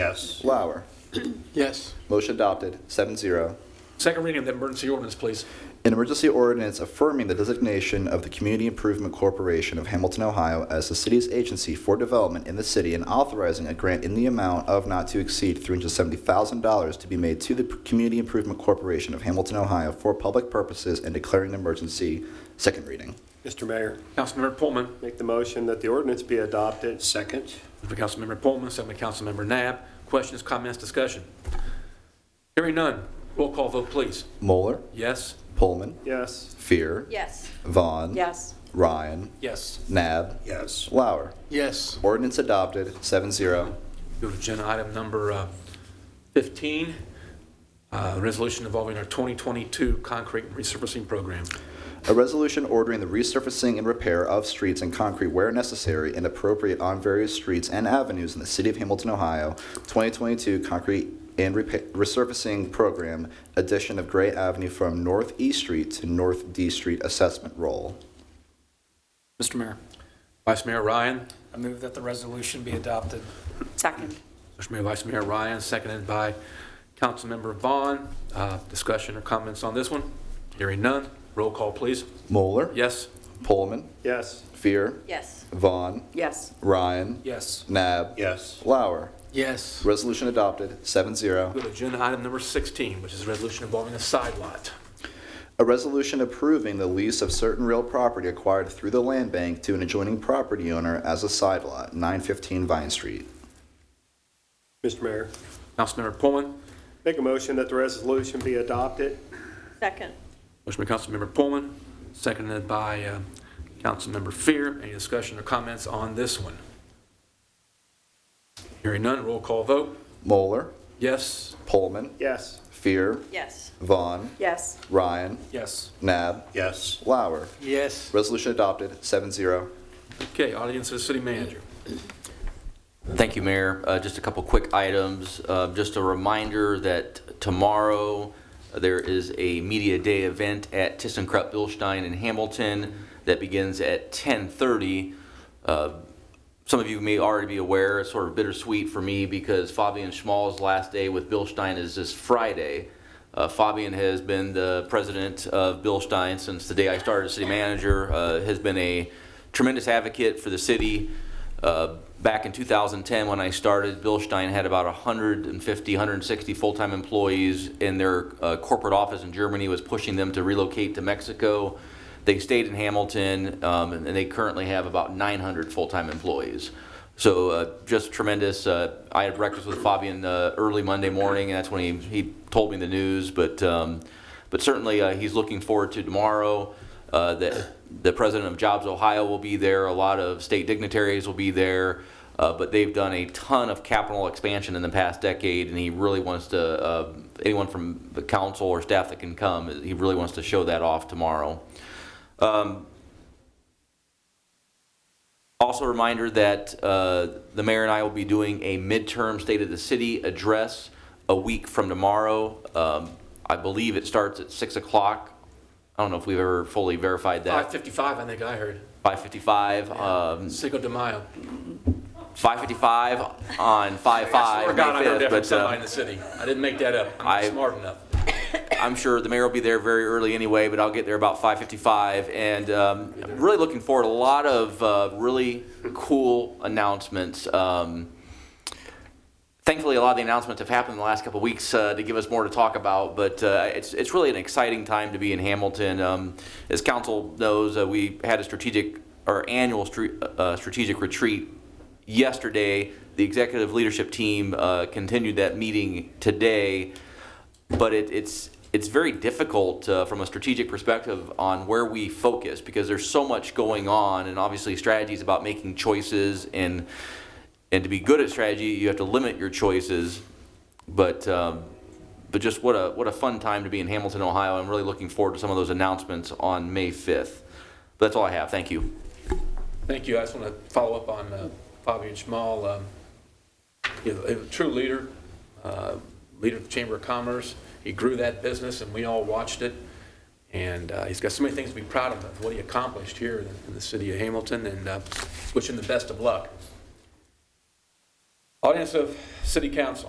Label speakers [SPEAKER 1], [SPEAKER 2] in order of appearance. [SPEAKER 1] Yes.
[SPEAKER 2] Lauer.
[SPEAKER 3] Yes.
[SPEAKER 2] Motion adopted, 7-0.
[SPEAKER 4] Second reading of the emergency ordinance, please.
[SPEAKER 2] An emergency ordinance affirming the designation of the Community Improvement Corporation of Hamilton, Ohio as the city's agency for development in the city and authorizing a grant in the amount of not to exceed $370,000 to be made to the Community Improvement Corporation of Hamilton, Ohio for public purposes and declaring an emergency. Second reading.
[SPEAKER 1] Mr. Mayor,
[SPEAKER 4] Councilmember Pullman,
[SPEAKER 1] make the motion that the ordinance be adopted. Second.
[SPEAKER 4] moved by Councilmember Pullman, second by Councilmember Nab. Questions, comments, discussion? Hearing none, roll call vote, please.
[SPEAKER 2] Moeller,
[SPEAKER 4] Yes?
[SPEAKER 2] Pullman,
[SPEAKER 1] Yes.
[SPEAKER 2] Fear,
[SPEAKER 5] Yes.
[SPEAKER 2] Vaughn,
[SPEAKER 5] Yes.
[SPEAKER 2] Ryan,
[SPEAKER 4] Yes.
[SPEAKER 2] Nab,
[SPEAKER 1] Yes.
[SPEAKER 2] Lauer.
[SPEAKER 3] Yes.
[SPEAKER 2] Ordinance adopted, 7-0.
[SPEAKER 4] Go to agenda item number uh, 15, uh, resolution involving our 2022 concrete resurfacing program.
[SPEAKER 2] A resolution ordering the resurfacing and repair of streets and concrete where necessary and appropriate on various streets and avenues in the city of Hamilton, Ohio, 2022 concrete and repa- resurfacing program, addition of Gray Avenue from North E Street to North D Street assessment roll.
[SPEAKER 6] Mr. Mayor,
[SPEAKER 4] Vice Mayor Ryan,
[SPEAKER 6] I move that the resolution be adopted.
[SPEAKER 5] Second.
[SPEAKER 4] Motion made by Vice Mayor Ryan, seconded by Councilmember Vaughn. Uh, Discussion or comments on this one? Hearing none, roll call, please.
[SPEAKER 2] Moeller,
[SPEAKER 4] Yes?
[SPEAKER 2] Pullman,
[SPEAKER 1] Yes.
[SPEAKER 2] Fear,
[SPEAKER 5] Yes.
[SPEAKER 2] Vaughn,
[SPEAKER 5] Yes.
[SPEAKER 2] Ryan,
[SPEAKER 6] Yes.
[SPEAKER 2] Nab,
[SPEAKER 1] Yes.
[SPEAKER 2] Lauer.
[SPEAKER 3] Yes.
[SPEAKER 2] Resolution adopted, 7-0.
[SPEAKER 4] Go to agenda item number 16, which is a resolution involving a side lot.
[SPEAKER 2] A resolution approving the lease of certain real property acquired through the land bank to an adjoining property owner as a side lot, 915 Vine Street.
[SPEAKER 1] Mr. Mayor,
[SPEAKER 4] Councilmember Pullman,
[SPEAKER 1] make a motion that the resolution be adopted.
[SPEAKER 5] Second.
[SPEAKER 4] motion by Councilmember Pullman, seconded by uh, Councilmember Fear. Any discussion or comments on this one? Hearing none, roll call vote.
[SPEAKER 2] Moeller,
[SPEAKER 4] Yes?
[SPEAKER 2] Pullman,
[SPEAKER 1] Yes.
[SPEAKER 2] Fear,
[SPEAKER 5] Yes.
[SPEAKER 2] Vaughn,
[SPEAKER 5] Yes.
[SPEAKER 2] Ryan,
[SPEAKER 6] Yes.
[SPEAKER 2] Nab,
[SPEAKER 1] Yes.
[SPEAKER 2] Lauer.
[SPEAKER 3] Yes.
[SPEAKER 2] Resolution adopted, 7-0.
[SPEAKER 4] Okay, audience of the city manager.
[SPEAKER 7] Thank you, Mayor. Uh, Just a couple quick items. Uh, Just a reminder that tomorrow, uh, there is a media day event at ThyssenKrupp Bilstein in Hamilton that begins at 10:30. Uh, Some of you may already be aware, it's sort of bittersweet for me because Fabian Schmall's last day with Bilstein is this Friday. Uh, Fabian has been the president of Bilstein since the day I started as city manager, uh, has been a tremendous advocate for the city. Uh, Back in 2010, when I started, Bilstein had about 150, 160 full-time employees, and their uh, corporate office in Germany was pushing them to relocate to Mexico. They stayed in Hamilton, um, and they currently have about 900 full-time employees. So uh, just tremendous. Uh, I had breakfast with Fabian uh, early Monday morning, and that's when he, he told me the news. But um, but certainly uh, he's looking forward to tomorrow. Uh, the the president of Jobs Ohio will be there. A lot of state dignitaries will be there. Uh, but they've done a ton of capital expansion in the past decade, and he really wants to. Uh, anyone from the council or staff that can come, he really wants to show that off tomorrow. Also a reminder that uh, the mayor and I will be doing a midterm State of the City address a week from tomorrow. Um, I believe it starts at 6 o'clock. I don't know if we've ever fully verified that.
[SPEAKER 4] 5:55, I think I heard.
[SPEAKER 7] 5:55, um,
[SPEAKER 4] Cinco de Mayo.
[SPEAKER 7] 5:55 on 5/5,
[SPEAKER 4] I swear to God, I heard that
[SPEAKER 7] May
[SPEAKER 4] from
[SPEAKER 7] 5th. But
[SPEAKER 4] somebody in
[SPEAKER 7] uh,
[SPEAKER 4] the city. I didn't make that up. I'm
[SPEAKER 7] I-
[SPEAKER 4] not smart enough.
[SPEAKER 7] I'm sure the mayor will be there very early anyway, but I'll get there about 5:55. And um, I'm really looking forward, to a lot of uh, really cool announcements. Um, thankfully, a lot of the announcements have happened in the last couple of weeks uh, to give us more to talk about. But uh, it's it's really an exciting time to be in Hamilton. Um, as council knows, uh, we had a strategic our annual stre- uh, strategic retreat yesterday. The executive leadership team uh, continued that meeting today, but it, it's it's very difficult uh, from a strategic perspective on where we focus because there's so much going on, and obviously strategy is about making choices and and to be good at strategy, you have to limit your choices. But um, but just what a what a fun time to be in Hamilton, Ohio. I'm really looking forward to some of those announcements on May 5th. But that's all I have. Thank you.
[SPEAKER 4] Thank you. I just want to follow up on uh, Fabian Schmal. um, you know, a True leader, uh, leader of the Chamber of Commerce. He grew that business and we all watched it. And uh, he's got so many things to be proud of, of what he accomplished here in- in the city of Hamilton and uh, wish him the best of luck. Audience of City Council.